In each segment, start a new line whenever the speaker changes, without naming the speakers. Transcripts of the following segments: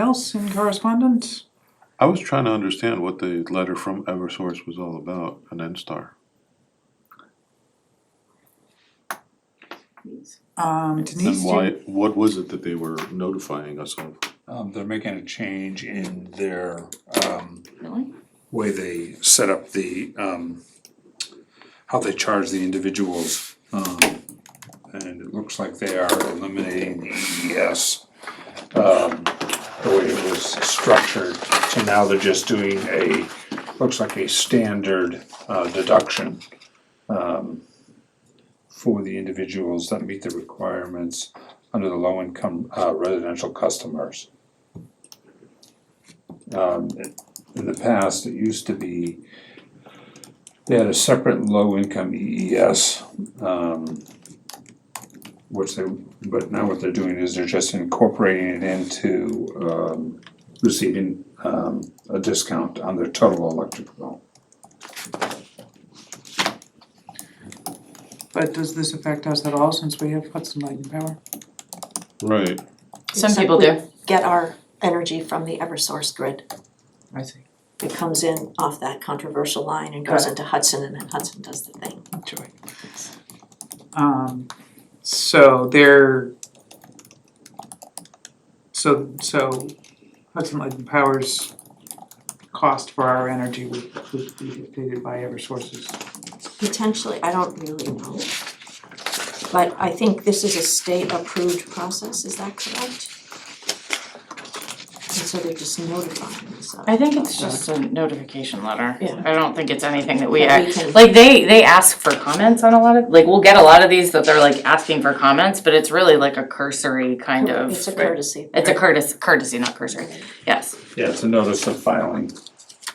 Else in correspondence?
I was trying to understand what the letter from Eversource was all about, an N-Star.
Um, Denise, do
And why,
you-
what was it that they were notifying us of?
Um, they're making a change in their, um,
Really?
way they set up the, um, how they charge the individuals. Um, and it looks like they are eliminating the EES, um, the way it was structured. So now they're just doing a, looks like a standard, uh, deduction, um, for the individuals that meet the requirements under the low-income, uh, residential customers. Um, in the past, it used to be, they had a separate low-income EES, um, which they, but now what they're doing is they're just incorporating it into, um, receiving, um, a discount on their total electric bill.
but does this affect us at all since we have Hudson Light and Power?
Right,
Some
Except
people
we
do.
Get our energy from the Eversource grid.
I see.
It comes in off that controversial line and goes
Got
into Hudson and then Hudson does the thing.
Enjoy. Um, so they're. So, so Hudson Light and Power's cost for our energy would, would be dictated by Eversource's.
Potentially, I don't really know. But I think this is a state approved process, is that correct? And so they're just notifying us of.
I think it's just a notification letter.
Yeah.
I don't think it's anything that we,
That we
act-
can-
like, they, they ask for comments on a lot of, like, we'll get a lot of these that they're like asking for comments, but it's really like a cursory kind of.
It's a courtesy.
It's a courtesy, courtesy, not cursory, yes.
Yeah, it's a notice of filing.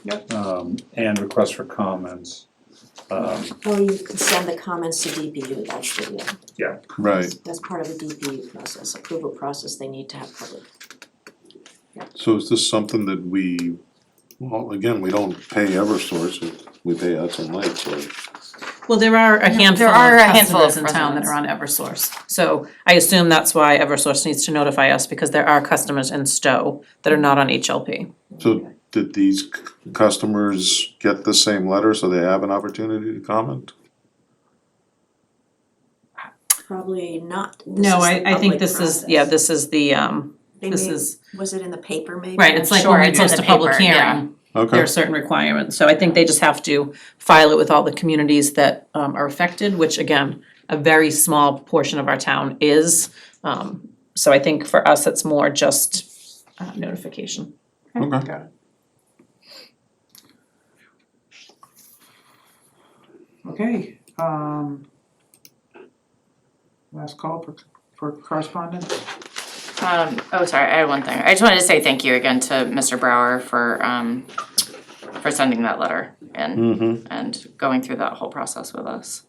Yep.
Um, and request for comments. Um,
Or you can send the comments to DPU, that's the, uh,
right,
that's part of the DPU process, approval process, they need to have public.
so is this something that we, well, again, we don't pay Eversource, we pay Hudson Light, so.
Well, there are a handful
there are a
of
handful
customers
of
in town that are on Eversource, so I assume that's why Eversource needs to notify us, because there are customers in Stowe that are not on HLP.
So did these c- customers get the same letter, so they have an opportunity to comment?
Probably not. This
No,
is
I,
the
I think
public
this is,
process.
yeah, this is the, um,
They
this
may-
is-
Was it in the paper maybe?
right, it's like
Sure,
when we
it's in
post
the
a public
paper, yeah.
hearing, there are
Okay,
certain requirements, so I think they just have to file it with all the communities that, um, are affected, which again, a very small portion of our town is, um, so I think for us, it's more just, uh, notification.
okay,
Got it. Okay, um. Last call for, for correspondence?
Um, oh, sorry, I had one thing. I just wanted to say thank you again to Mr. Brower for, um, for sending that letter and,
mm-hmm,
and going through that whole process with us.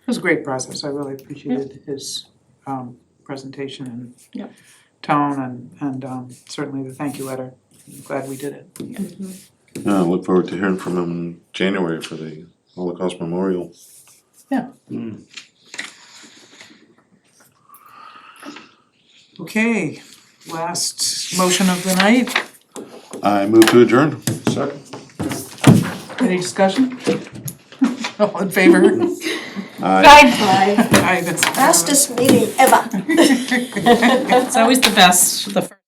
It was a great process, I really appreciated his um presentation and
Yep.
tone and and um certainly the thank you letter. I'm glad we did it.
yeah, I look forward to hearing from them in January for the Holocaust Memorial.
Okay, last motion of the night,
I move to adjourn.
second.
any discussion? All in favor?
Aye.
Bye.
Aye, that's.
Fastest meeting ever.
It's always the best, the first.